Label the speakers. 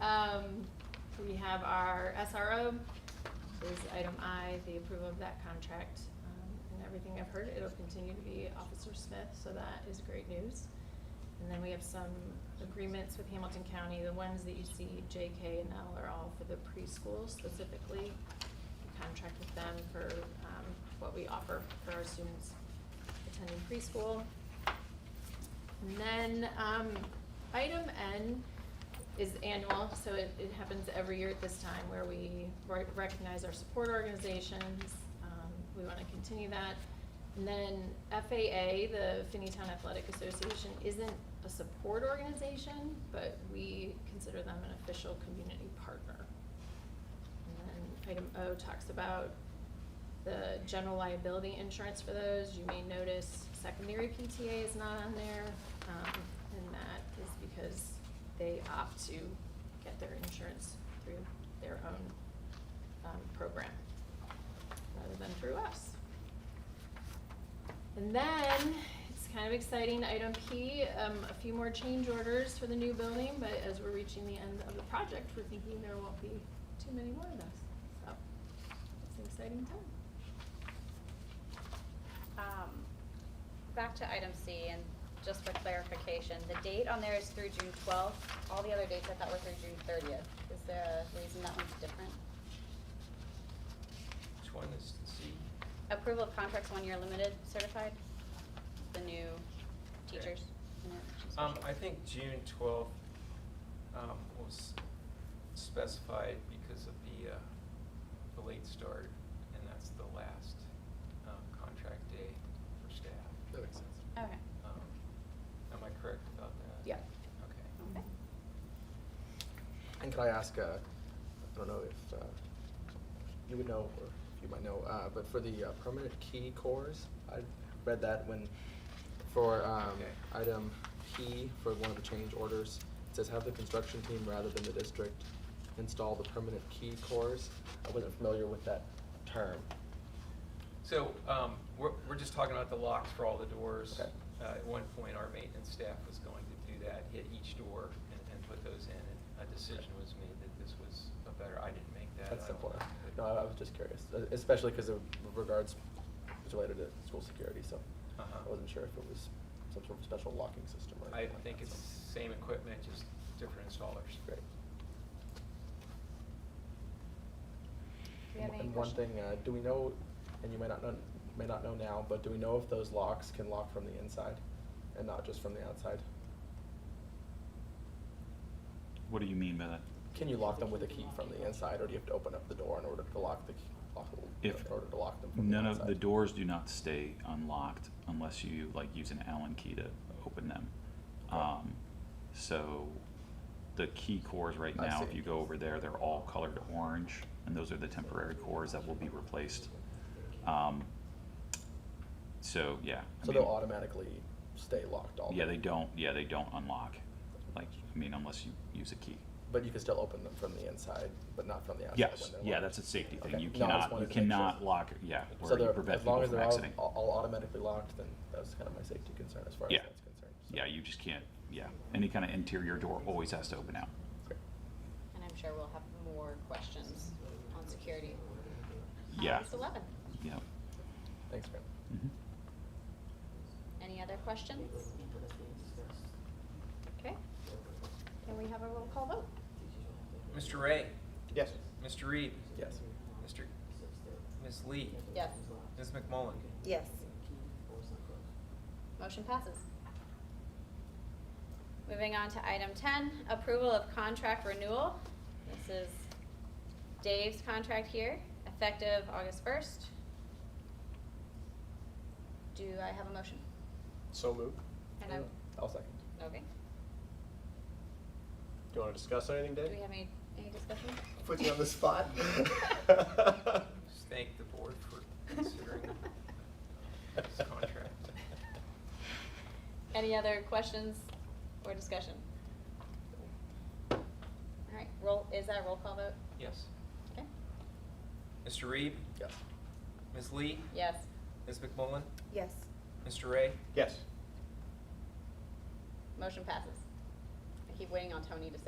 Speaker 1: Um, we have our SRO, this is item I, the approval of that contract. Um, And everything I've heard, it'll continue to be Officer Smith, so that is great news. And then we have some agreements with Hamilton County, the ones that you see J, K, and L are all for the preschool specifically. We Contract with them for, um, what we offer for our students attending preschool. And then, um, item N is annual, so it, it happens every year at this time where we re- recognize our support organizations. Um, We wanna continue that. And then FAA, the Finneytown Athletic Association, isn't a support organization, but we consider them an official community partner. And then item O talks about the general liability insurance for those. You may notice secondary PTA is not on there, um, and that is because they opt to get their insurance through their own, um, program rather than through us. And then, it's kind of exciting, item P, um, a few more change orders for the new building, but as we're reaching the end of the project, we're thinking there won't be too many more of those, so it's an exciting time.
Speaker 2: Um, Back to item C, and just for clarification, the date on there is through June twelfth. All the other dates I thought were through June thirtieth. Is there a reason that one's different?
Speaker 3: Which one is the C?
Speaker 2: Approval of contracts one-year limited certified, the new
Speaker 3: Okay.
Speaker 2: teachers. and their teaching
Speaker 3: Um, I
Speaker 2: specialists.
Speaker 3: think June twelfth, um, was specified because of the, uh, the late start, and that's the last, um, contract day for staff.
Speaker 4: That makes sense.
Speaker 2: Okay.
Speaker 3: Um, Am I correct about that?
Speaker 1: Yeah.
Speaker 3: Okay.
Speaker 2: Okay.
Speaker 4: And could I ask, uh, I don't know if uh, you would know, or if you might know, uh, but for the uh, permanent key cores, I read that when, for um,
Speaker 3: Okay.
Speaker 4: item P, for one of the change orders, it says have the construction team rather than the district install the permanent key cores. I wasn't familiar with that term.
Speaker 3: So, um, we're, we're just talking about the locks for all the doors.
Speaker 4: Okay.
Speaker 3: Uh, at one point, our maintenance staff was going to do that, hit each door and, and put those in, and a decision was made that this was a better, I didn't make that.
Speaker 4: That's
Speaker 3: I don't
Speaker 4: simpler.
Speaker 3: know,
Speaker 4: No,
Speaker 3: but-
Speaker 4: I I was just curious, uh, especially because of regards, it's related to school security, so
Speaker 3: Uh-huh.
Speaker 4: I wasn't sure if it was some sort of special locking system or
Speaker 3: I
Speaker 4: anything like
Speaker 3: think
Speaker 4: that,
Speaker 3: it's
Speaker 4: so.
Speaker 3: same equipment, just different installers.
Speaker 4: Great.
Speaker 2: Do we have
Speaker 4: And-
Speaker 2: any
Speaker 4: And one
Speaker 2: question?
Speaker 4: thing, uh, do we know, and you may not know, may not know now, but do we know if those locks can lock from the inside and not just from the outside?
Speaker 5: What do you mean by that?
Speaker 4: Can you lock them with a key from the inside, or do you have to open up the door in order to lock the, key- lock, the-
Speaker 5: If
Speaker 4: in order to lock them from the
Speaker 5: None
Speaker 4: inside?
Speaker 5: of the doors do not stay unlocked unless you like use an Allen key to open them. Um, so the key cores right
Speaker 4: I
Speaker 5: now, if
Speaker 4: see.
Speaker 5: you go over there, they're all colored orange, and those are the temporary cores that will be replaced. Um, so yeah. I
Speaker 4: So they'll
Speaker 5: mean,
Speaker 4: automatically stay locked all
Speaker 5: Yeah,
Speaker 4: day?
Speaker 5: they don't. Yeah, they don't unlock. Like I mean, unless you use a key.
Speaker 4: But you can still open them from the inside, but not from the outside?
Speaker 5: Yes.
Speaker 4: when they're
Speaker 5: Yeah,
Speaker 4: locked.
Speaker 5: that's a safety thing.
Speaker 4: Okay.
Speaker 5: You
Speaker 4: No, I just wanted
Speaker 5: cannot. You
Speaker 4: to make sure.
Speaker 5: cannot lock. Yeah, or
Speaker 4: So
Speaker 5: you
Speaker 4: they're,
Speaker 5: prevent
Speaker 4: as long
Speaker 5: people
Speaker 4: as
Speaker 5: from
Speaker 4: they're all,
Speaker 5: exiting.
Speaker 4: all all automatically locked, then that was kind of my safety concern as far as
Speaker 5: Yeah.
Speaker 4: that's concerned. so.
Speaker 5: Yeah, you just can't, yeah. Any kind of interior door always has to open out.
Speaker 4: Great.
Speaker 2: And I'm sure we'll have more questions on security. on
Speaker 5: Yeah.
Speaker 2: August eleven.
Speaker 5: Yep.
Speaker 4: Thanks, ma'am.
Speaker 5: Mhm.
Speaker 2: Any other questions? Okay. Can we have a roll call vote?
Speaker 3: Mr. Ray,
Speaker 4: Yes.
Speaker 3: Mr. Reed,
Speaker 4: Yes.
Speaker 3: Mr., Ms. Lee,
Speaker 2: Yes.
Speaker 3: Ms. McMullen.
Speaker 6: Yes.
Speaker 2: Motion passes. Moving on to item ten, approval of contract renewal. This is Dave's contract here, effective August first. Do I have a motion?
Speaker 7: So moved.
Speaker 2: And I,
Speaker 4: I'll second.
Speaker 2: okay.
Speaker 7: Do you want to discuss anything,
Speaker 2: Do
Speaker 7: Dave?
Speaker 2: we have any, any discussion?
Speaker 7: Put you on the spot.
Speaker 3: Just Thank the board for considering this contract.
Speaker 2: Any other questions or discussion? All right, roll, is that a roll call vote?
Speaker 3: Yes.
Speaker 2: Okay,
Speaker 3: Mr. Reed,
Speaker 4: Yes.
Speaker 3: Ms. Lee,
Speaker 2: yes.
Speaker 3: Ms. McMullen,
Speaker 6: Yes.
Speaker 3: Mr. Ray.
Speaker 7: Yes.
Speaker 2: Motion passes. I keep waiting on Tony to say